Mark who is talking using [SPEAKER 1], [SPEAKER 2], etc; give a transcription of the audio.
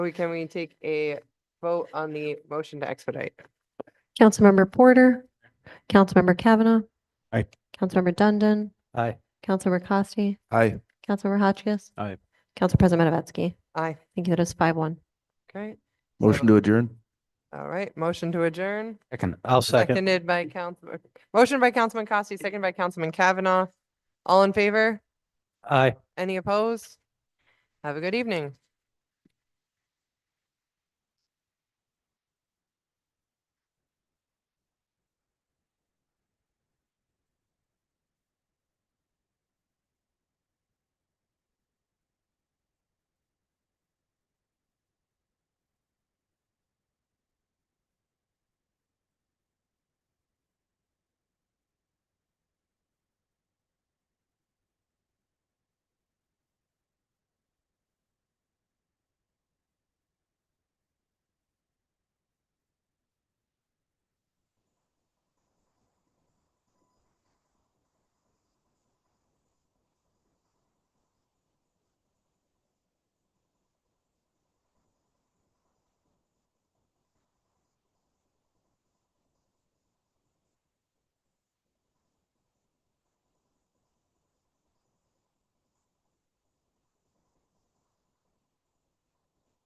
[SPEAKER 1] We, can we take a vote on the motion to expedite?
[SPEAKER 2] Councilmember Porter, Councilmember Kavanaugh.
[SPEAKER 3] Aye.
[SPEAKER 2] Councilmember Dundon,
[SPEAKER 3] Aye.
[SPEAKER 2] Councilmember Costi,
[SPEAKER 3] Aye.
[SPEAKER 2] Councilmember Hotchkiss.
[SPEAKER 3] Aye.
[SPEAKER 2] Council President Matavetsky.
[SPEAKER 1] Aye,
[SPEAKER 2] Thank you. That is five one.
[SPEAKER 1] great.
[SPEAKER 4] Motion to adjourn?
[SPEAKER 1] All right, motion to adjourn,
[SPEAKER 3] Second, I'll second.
[SPEAKER 1] seconded by Councilman, motion by Councilman Costi, seconded by Councilman Kavanaugh. All in favor?
[SPEAKER 3] Aye.
[SPEAKER 1] Any opposed? Have a good evening.